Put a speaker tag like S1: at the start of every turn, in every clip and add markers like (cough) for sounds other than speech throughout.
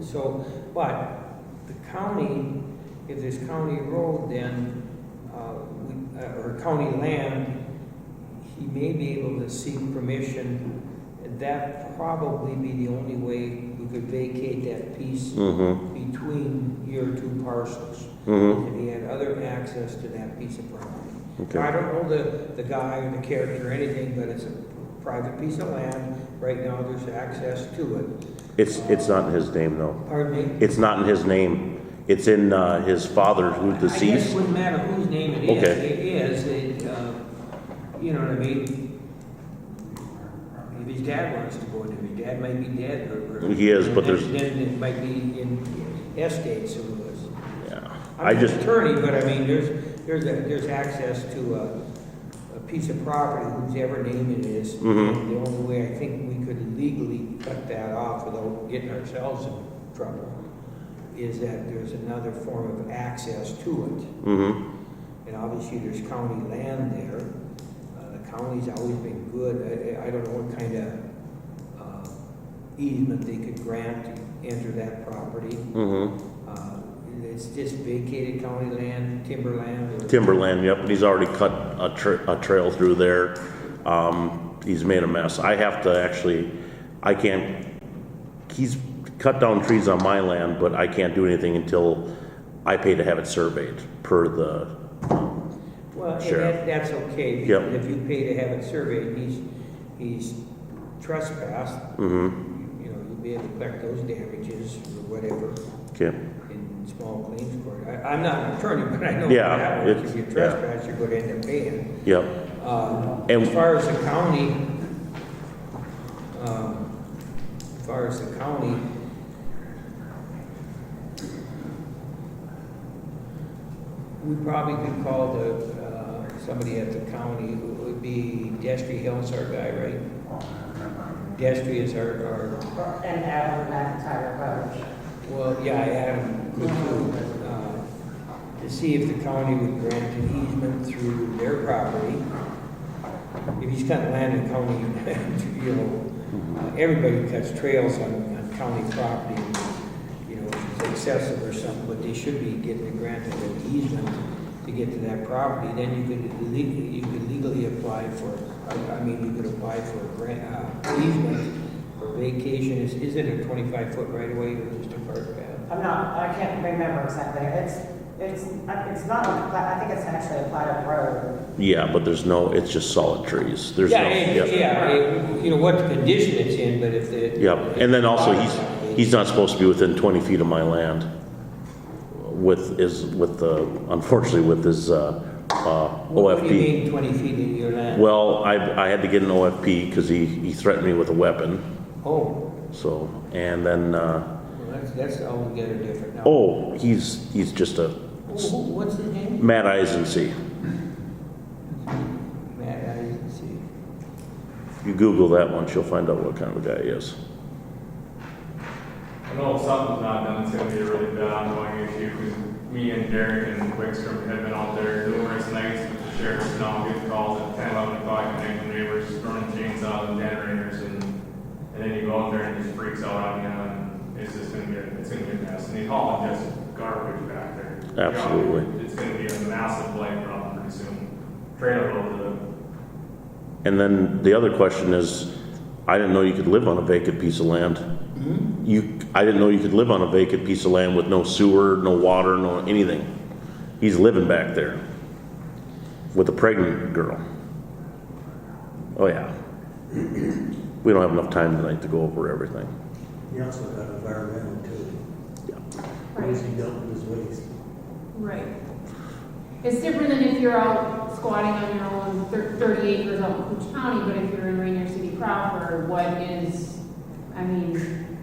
S1: So, but the county, if there's county road, then, uh, we- uh, or county land, he may be able to seek permission. That probably be the only way we could vacate that piece
S2: Mm-hmm,
S1: between your two parcels.
S2: mm-hmm,
S1: And he had other access to that piece of property. I
S2: okay.
S1: don't know the, the guy or the character or anything, but it's a private piece of land. Right now, there's access to it.
S2: It's, it's not in his name, no.
S1: Pardon me?
S2: It's not in his name. It's in, uh, his father who
S1: I guess it
S2: deceased.
S1: wouldn't matter whose name it is.
S2: Okay.
S1: It is, it, uh, you know what I mean? If his dad wants to go into it, his dad might be dead or. or-
S2: He is, but there's-
S1: Then it might be in estates or was.
S2: Yeah. I
S1: I'm not an
S2: just,
S1: attorney, but I mean, there's, there's, a- there's access to a, a piece of property, whose ever name it is.
S2: Mhm.
S1: And The only way I think we could legally cut that off without getting ourselves in trouble is that there's another form of access to
S2: mm-hmm,
S1: it. And obviously, there's county land there. Uh, The county's always been good. I, I- I don't know what kind of uh, easement they could grant to enter that property.
S2: mm-hmm.
S1: Uh, It's just vacated county land, timberland. or-
S2: Timberland, yep, he's already cut a tra- a trail through there. Um, he's made a mess. I have to actually, I can't, he's cut down trees on my land, but I can't do anything until I pay to have it surveyed per the,
S1: Well, and
S2: Sure.
S1: that, that's okay.
S2: Yep.
S1: because If you pay to have it surveyed, he's, he's trespassed,
S2: mm-hmm,
S1: you know, you'll be able to collect those damages or whatever
S2: okay.
S1: in small claims court. I, I'm not an attorney, (laughs) but I know
S2: Yeah,
S1: that works. If
S2: it's-
S1: you
S2: yeah.
S1: trespass, you're gonna end up paying.
S2: Yep,
S1: Uh,
S2: And-
S1: As far as the county, um, as far as the county, we probably could call the, uh, somebody at the county, it would be Destry Hill's our guy, right? Destry is our, our,
S3: And Adam McIntyre Road.
S1: well, yeah, I had him look through, uh, to see if the county would grant an easement through their property. If he's got land in county, (laughs) you know, uh, everybody cuts trails on, on county property, you know, if it's excessive or something, but they should be getting a grant of an easement to get to that property, then you could legally, you could legally apply for, I, I mean, you could apply for a grant, uh, easement for vacation, is, is it a twenty-five foot right of way or just a park path?
S3: I'm not, I can't remember exactly. It's, it's, it's not, a pla- I think it's actually a platted road.
S2: yeah, but there's no, it's just solid trees. There's no,
S1: Yeah, it-
S2: yep.
S1: yeah, it- you know, what condition it's in, but if the.
S2: Yep, and then also, he's, he's not supposed to be within 20 feet of my land with, is, with the, unfortunately, with his uh, uh,
S1: What do you
S2: OFP.
S1: mean twenty feet in your land?
S2: Well, I, I had to get an OFP because he, he threatened me with a weapon,
S1: Oh,
S2: so, and then, uh,
S1: well, that's, that's altogether different now.
S2: oh, he's, he's just a,
S1: Who- who- What's his name?
S2: Matt Eisensee.
S1: Matt, I didn't see.
S2: You Google that once, you'll find out what kind of a guy he is.
S4: I know if something's not done, it's gonna be a really bad ongoing issue, because me and Derek and Wickstrom have been out there numerous nights with the sheriff, now getting calls at 10, 11 o'clock at night, when neighbors throwing chainsaws and generators, and, and then you go out there and it just freaks out on you, and it's just gonna get, it's gonna be a mess, and they haul just garbage back there.
S2: Absolutely.
S4: It's gonna be a massive blight problem pretty soon, trailer load of,
S2: And then the other question is, I didn't know you could live on a vacant piece of land. You, I didn't know you could live on a vacant piece of land with no sewer, no water, no anything. He's living back there with a pregnant girl. Oh, yeah. (clears throat) We don't have enough time tonight to go over everything.
S5: You also got environmental too. Once
S6: Right,
S5: you dump this waste,
S6: right. It's different than if you're out squatting on your own thir- thirty acres out in Coos County, but if you're in Rainier City proper, what is, I mean,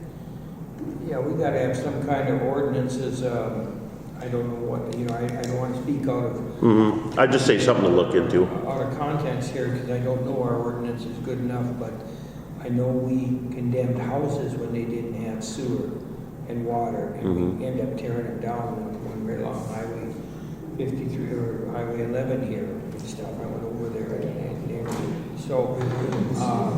S1: Yeah, we gotta have some kind of ordinances, um, I don't know what, you know, I, I don't wanna speak out of
S2: hmm I'd just say something to look into.
S1: Out of context here, because I don't know our ordinance is good enough, but I know we condemned houses when they didn't have sewer and water, and we
S2: Mm-hmm.
S1: end up tearing them down when- when we're along Highway fifty-three or Highway eleven here and stuff. I went over there and, and, everything. so, uh,